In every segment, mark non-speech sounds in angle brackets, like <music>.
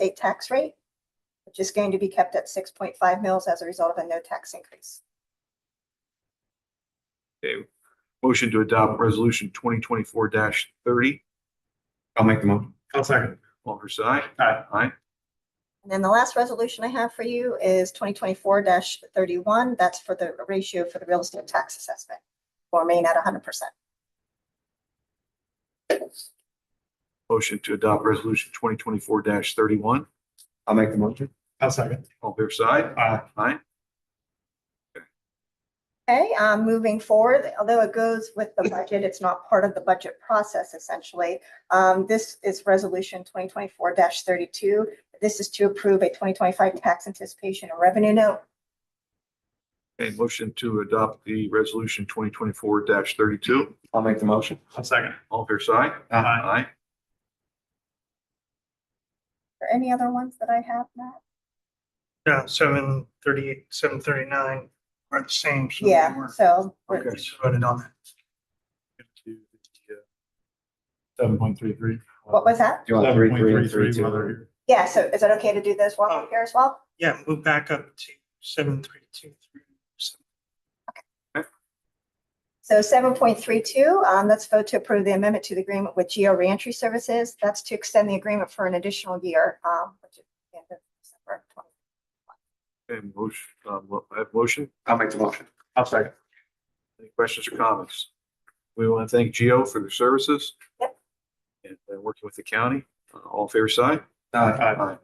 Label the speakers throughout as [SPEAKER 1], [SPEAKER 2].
[SPEAKER 1] state tax rate, which is going to be kept at six point five mils as a result of a no tax increase.
[SPEAKER 2] Okay, motion to adopt resolution twenty twenty-four thirty.
[SPEAKER 3] I'll make the motion.
[SPEAKER 4] I'll second.
[SPEAKER 2] All fair side?
[SPEAKER 4] Aye.
[SPEAKER 2] Aye.
[SPEAKER 1] And then the last resolution I have for you is twenty twenty-four thirty-one. That's for the ratio for the real estate tax assessment. Will remain at hundred percent.
[SPEAKER 2] Motion to adopt resolution twenty twenty-four thirty-one.
[SPEAKER 3] I'll make the motion.
[SPEAKER 4] I'll second. Uh,
[SPEAKER 2] All fair side?
[SPEAKER 4] Aye.
[SPEAKER 2] Aye.
[SPEAKER 1] Okay, um, moving forward, although it goes with the budget, it's not part of the budget process essentially. Um, this is resolution twenty twenty-four thirty-two. This is to approve a twenty twenty-five tax anticipation and revenue note.
[SPEAKER 2] Okay, motion to adopt the resolution twenty twenty-four thirty-two.
[SPEAKER 3] I'll make the motion.
[SPEAKER 4] I'll second.
[SPEAKER 2] All fair side?
[SPEAKER 4] Aye.
[SPEAKER 2] Aye.
[SPEAKER 1] Are there any other ones that I have, Matt?
[SPEAKER 5] Yeah, seven thirty-eight, seven thirty-nine are the same. so they
[SPEAKER 1] Yeah,
[SPEAKER 5] were-
[SPEAKER 1] so we're-
[SPEAKER 5] We just voted on that.
[SPEAKER 4] Seven point three three.
[SPEAKER 1] what was that?
[SPEAKER 3] Do you want Uh, three, three, three, two?
[SPEAKER 1] Yeah, so is it okay to do those while we're here as well?
[SPEAKER 5] Yeah, move back up to seven three two three.
[SPEAKER 1] So seven point three two, um, let's vote to approve the amendment to the agreement with Geo Reentry Services. That's to extend the agreement for an additional year, um, which is the end of December 20.
[SPEAKER 2] Okay, motion, um, well, I have motion.
[SPEAKER 3] I'll make the motion.
[SPEAKER 4] I'll second.
[SPEAKER 2] Any questions or comments? We want to thank Geo for their services.
[SPEAKER 1] Yep.
[SPEAKER 2] And uh, working with the county. Uh, All fair side?
[SPEAKER 3] Aye.
[SPEAKER 2] Aye.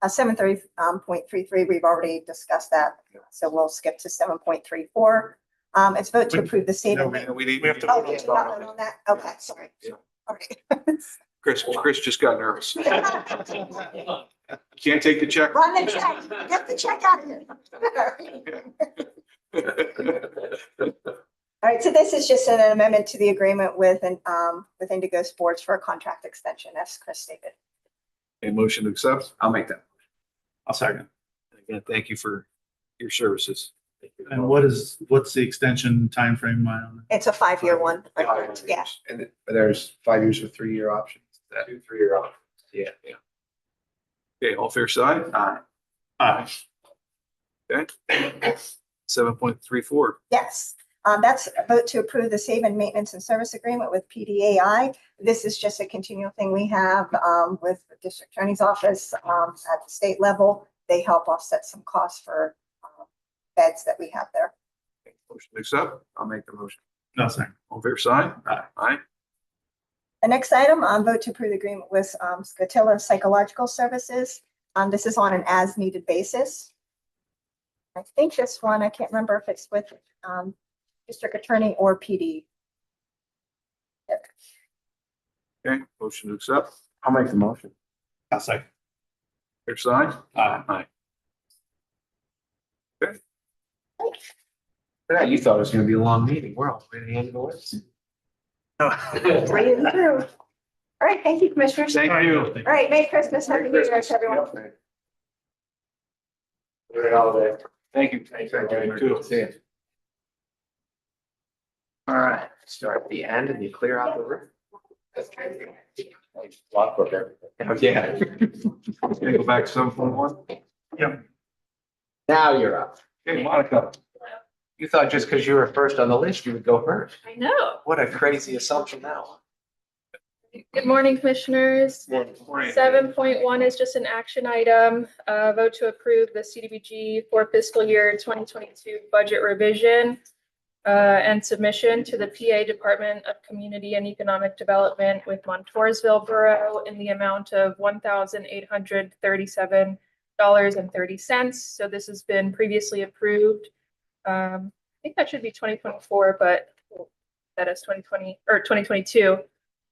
[SPEAKER 1] Uh, seven thirty, um, point three three, we've already discussed that, so we'll skip to seven point three four. Um, it's vote to approve the state.
[SPEAKER 4] No,
[SPEAKER 1] of-
[SPEAKER 2] And we need.
[SPEAKER 5] We have to
[SPEAKER 1] Oh, you did not vote on that? Okay, sorry.
[SPEAKER 2] Yeah.
[SPEAKER 1] All right.
[SPEAKER 2] Chris, Chris just got nervous. Can't take the
[SPEAKER 1] <laughs>
[SPEAKER 2] check.
[SPEAKER 1] Run the check, get the check out of here. <laughs> All right, so this is just an amendment to the agreement with, an, um, with Indigo Sports for a contract extension, as Chris stated.
[SPEAKER 2] A motion to accept.
[SPEAKER 3] I'll make that.
[SPEAKER 4] I'll second.
[SPEAKER 2] Again, thank you for your services. Oh,
[SPEAKER 4] And what is, what's the extension timeframe on
[SPEAKER 1] It's a five-year one. Yeah,
[SPEAKER 3] And th- there's five years with three-year options. Two, three-year options.
[SPEAKER 2] Yeah, yeah. Okay, all fair side?
[SPEAKER 3] Aye.
[SPEAKER 4] that? Aye.
[SPEAKER 2] Okay. Seven point three four.
[SPEAKER 1] yes. Um, that's a vote to approve the save and maintenance and service agreement with PDAI. This is just a continual thing we have, um, with the district attorney's office, um, at the state level. They help offset some costs for, um, beds that we have there.
[SPEAKER 2] Motion to accept.
[SPEAKER 3] I'll make the motion.
[SPEAKER 4] No, second.
[SPEAKER 2] All fair side?
[SPEAKER 4] Aye.
[SPEAKER 2] Aye.
[SPEAKER 1] The next item, um, vote to approve the agreement with, um, Scotilla Psychological Services. Um, this is on an as-needed basis. I think this one, I can't remember if it's with, um, district attorney or PD.
[SPEAKER 2] Okay, motion to accept.
[SPEAKER 3] I'll make the motion.
[SPEAKER 4] I'll second.
[SPEAKER 2] Fair side?
[SPEAKER 4] Aye.
[SPEAKER 2] Aye.
[SPEAKER 3] Yeah, you thought it was gonna be a long meeting. We're all ready to end the list.
[SPEAKER 5] <laughs>
[SPEAKER 1] Right through. All right, thank you, commissioners. All
[SPEAKER 2] Thank you.
[SPEAKER 1] right, Merry Christmas, Happy New Year to everyone.
[SPEAKER 3] Very holiday.
[SPEAKER 2] Thank you. Thank you.
[SPEAKER 3] See ya. All right, start at the end and you clear out the room. Lock up everything. <laughs> Yeah.
[SPEAKER 2] Can I go back to seven point one?
[SPEAKER 3] Now you're up.
[SPEAKER 2] Hey, Monica.
[SPEAKER 3] You thought just because you were first on the list, you would go first.
[SPEAKER 6] I know.
[SPEAKER 3] What a crazy assumption that was.
[SPEAKER 6] Good morning, commissioners.
[SPEAKER 2] Morning. Morning.
[SPEAKER 6] Seven point one is just an action item, uh, vote to approve the CDBG for fiscal year twenty twenty-two budget revision uh, and submission to the PA Department of Community and Economic Development with Montoursville Borough in the amount of one thousand eight hundred thirty-seven dollars and thirty cents. So this has been previously approved. Um, I think that should be twenty twenty-four, but that is twenty twenty, or twenty twenty-two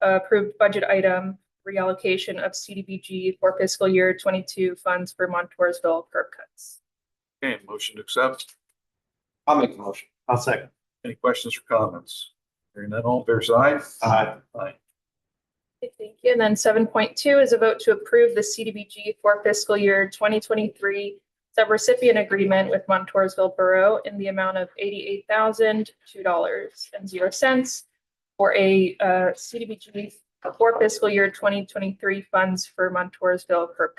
[SPEAKER 6] approved budget item reallocation of CDBG for fiscal year twenty-two funds for Montoursville curb cuts.
[SPEAKER 2] Okay, motion to accept.
[SPEAKER 3] I'll make the motion.
[SPEAKER 4] I'll second.
[SPEAKER 2] Any questions or comments? Hearing none, all fair side?
[SPEAKER 4] Aye.
[SPEAKER 2] Aye.
[SPEAKER 6] Okay, Thank you. And then seven point two is a vote to approve the CDBG for fiscal year twenty twenty-three subrecipient agreement with Montoursville Borough in the amount of eighty-eight thousand, two dollars and zero cents for a uh, CDBG for fiscal year twenty twenty-three funds for Montoursville curb